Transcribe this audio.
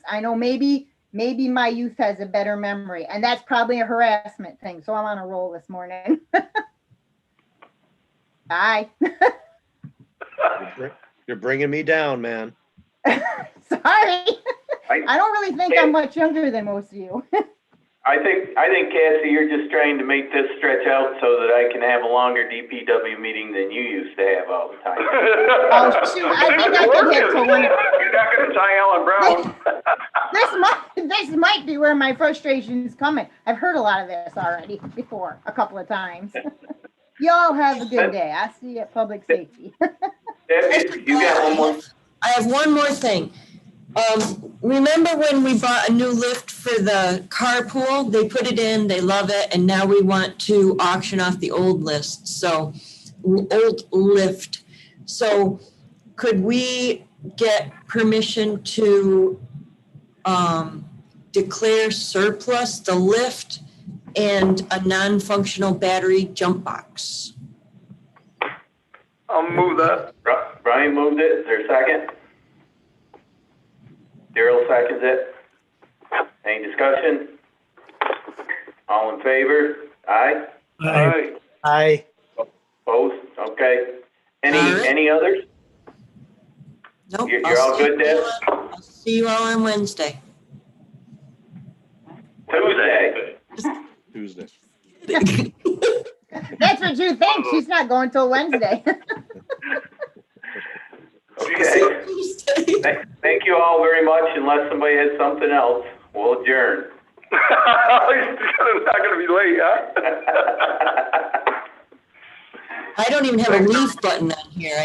I know maybe, maybe my youth has a better memory, and that's probably a harassment thing, so I'm on a roll this morning. Bye. You're br- You're bringing me down, man. Sorry. I don't really think I'm much younger than most of you. I think, I think Cassie, you're just trying to make this stretch out so that I can have a longer DPW meeting than you used to have all the time. Oh, shoot, I think I can get to one. You're not gonna tie Alan Brown. This might, this might be where my frustration's coming. I've heard a lot of this already before, a couple of times. Y'all have a good day. I see you at public safety. Debbie, You got one more? I have one more thing. Um, remember when we bought a new lift for the carpool? They put it in, they love it, and now we want to auction off the old list, so, old lift. So could we get permission to, um, declare surplus the lift and a non-functional battery jump box? I'll move that. Bri- Brian moved it. Is there a second? Daryl seconds it. Any discussion? All in favor? Aye? Aye. I, Both? Okay. Any, Aye. any others? Nope. You're- I'll you're all see good, you Deb? on- I'll See you all on Wednesday. Tuesday. Tuesday. That's what you think. She's not going till Wednesday. Okay. Thank- Thank you all very much. Unless somebody has something else, we'll adjourn. It's not gonna be late, huh? I don't even have a leave button on here.